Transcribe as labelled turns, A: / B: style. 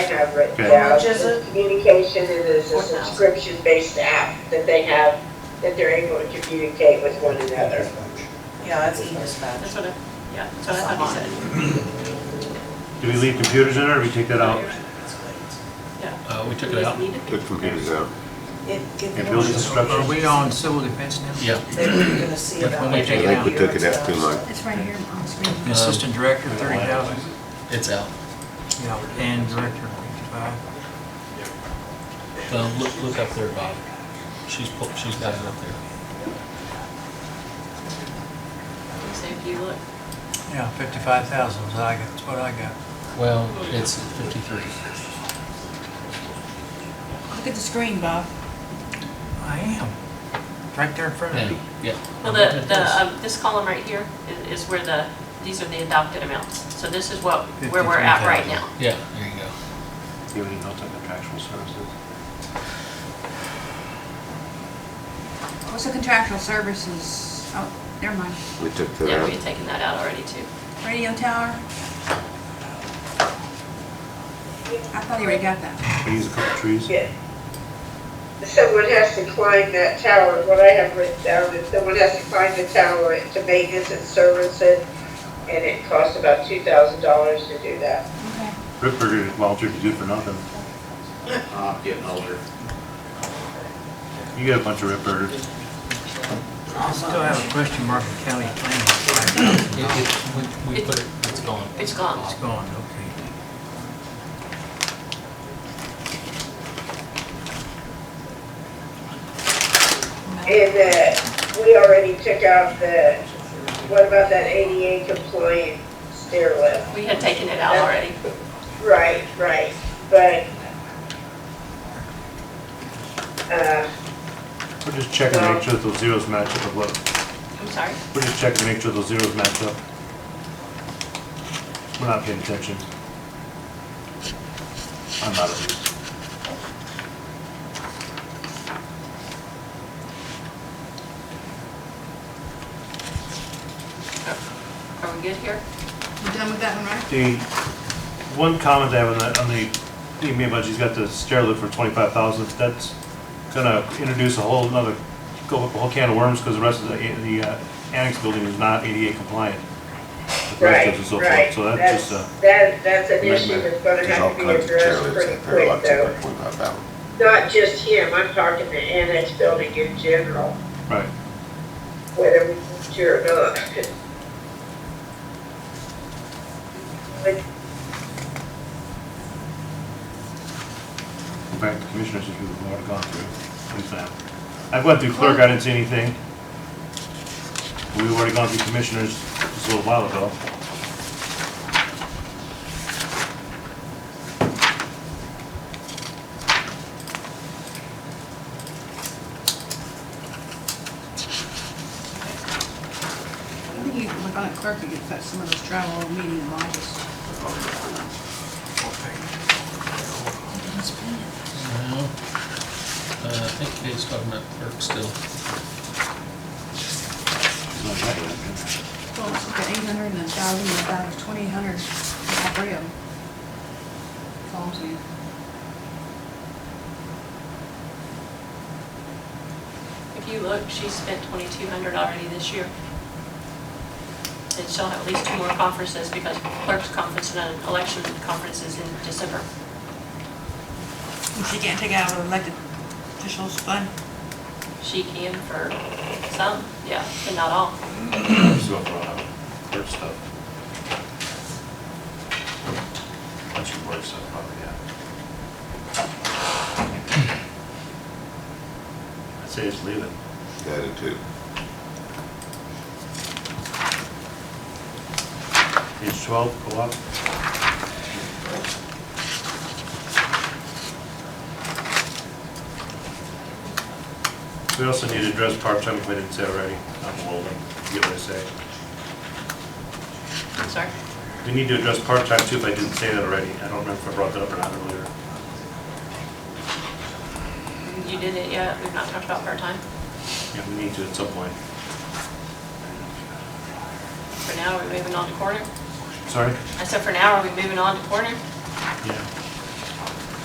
A: have written
B: Okay.
A: down.
C: Which is
A: is
C: it?
A: Communication, it is a
C: 4,000.
A: subscription-based app that they have, that they're able to communicate with one another.
C: Yeah, it's e-dispatch.
D: That's what I, yeah, that's what I thought he said.
B: Do we leave computers in there, or we take that out?
E: Uh, we took
D: You
E: it
D: guys
E: out?
D: need it?
F: Took computers out.
C: It- it-
B: And building
G: Are
B: structures?
G: we on civil defense now?
E: Yeah.
C: They were gonna see
G: That's
C: about.
G: when we
C: it.
G: take it
F: I think we
G: out.
F: took it out too much.
H: It's right here on screen.
G: The Assistant director, thirty thousand,
E: It's out.
G: and director, fifty-five.
E: Uh, Look, look up there, Bob. She's, pu- she's got it up there.
D: You say if you look.
G: Yeah, fifty-five thousand is I got, that's what I got.
E: Well, it's 53.
H: Look at the screen, Bob.
G: I am, right there in front of
E: Yeah,
G: you.
E: yeah.
D: Well, the, the, um, this column right here i- is where the, these are the adopted amounts. So this is what, where we're at right now.
E: Yeah, there you go.
B: You already know, it's like contractual services.
H: What's the contractual services? Oh, never mind.
F: We took that
D: Yeah, we
F: out.
D: had taken that out already too.
H: Radio tower? I thought he already got that.
B: We use a couple trees.
A: Yeah. Someone has to climb that tower, what I have written down is someone has to climb the tower to maintenance and service it, and it costs about two thousand dollars to do that.
H: Okay.
B: Rip Burger, Walter, you good for nothing.
I: I'm getting older.
B: You got a bunch of Rip Burgers.
G: I still have a question mark in county
E: It-
G: planning.
E: it- We we put it, it's gone.
D: It's gone.
G: It's gone, okay.
A: And, uh, we already took out the, what about that ADA compliant stair lift?
D: We had taken it out already.
A: Right, right, but, uh,
B: We're just checking to make sure that those zeros match up with what,
D: I'm sorry.
B: we're just checking to make sure those zeros match up. We're not paying attention. I'm out of it.
D: Oh, Are we good here?
H: You done with that one, right?
B: The, one comment I have on the, on the EMA budget, he's got the stair lift for twenty-five thousand, that's gonna introduce a whole another, go up a whole can of worms, because the rest of the, the uh, annex building is not ADA compliant. with
A: right,
B: bathrooms and so forth.
A: right.
B: So that's just, uh,
A: That, that's an issue
F: Nightmare.
A: that's gonna
F: There's all
A: have to be
F: kinds of
A: addressed
F: trailers
A: pretty
F: that are a
A: quick
F: lot cheaper
A: though.
F: than twenty-five thousand.
A: Not just him, I'm talking the annex building in general,
B: right,
A: whether we need to or not. But
B: in fact, the commissioners, if you've already gone through, at least I have. I went through clerk, I didn't see anything. We've already gone through commissioners just a little while ago.
H: I think you, look on the clerk, you could put some of those travel meeting models.
E: No. Uh, I think Kate's talking about clerk
B: It's
E: still.
B: not that bad.
H: Well, let's look at eight hundred and a thousand, and a thousand, twenty hundred, all three of them. That's all I'm saying.
D: If you look, she spent twenty-two hundred already this year. And she'll have at least two more conferences because clerk's conference and an election conference is in December.
H: She can't take out her elected officials fund.
D: She can for some, yeah, but not all.
B: So, uh, clerk stuff. Bunch of work stuff, probably, yeah. I'd say just leave it.
F: That too.
B: Page twelve, co-op. We also need to address part-time, if I didn't say already, I'm holding, forget what I say.
D: I'm sorry.
B: We need to address part-time too, if I didn't say that already, I don't remember if I brought that up or not earlier.
D: You did it yet. We've not talked about part-time.
B: Yeah, we need to at some point.
D: For now, are we moving on to corner?
B: Sorry?
D: I said, for now, are we moving on to corner?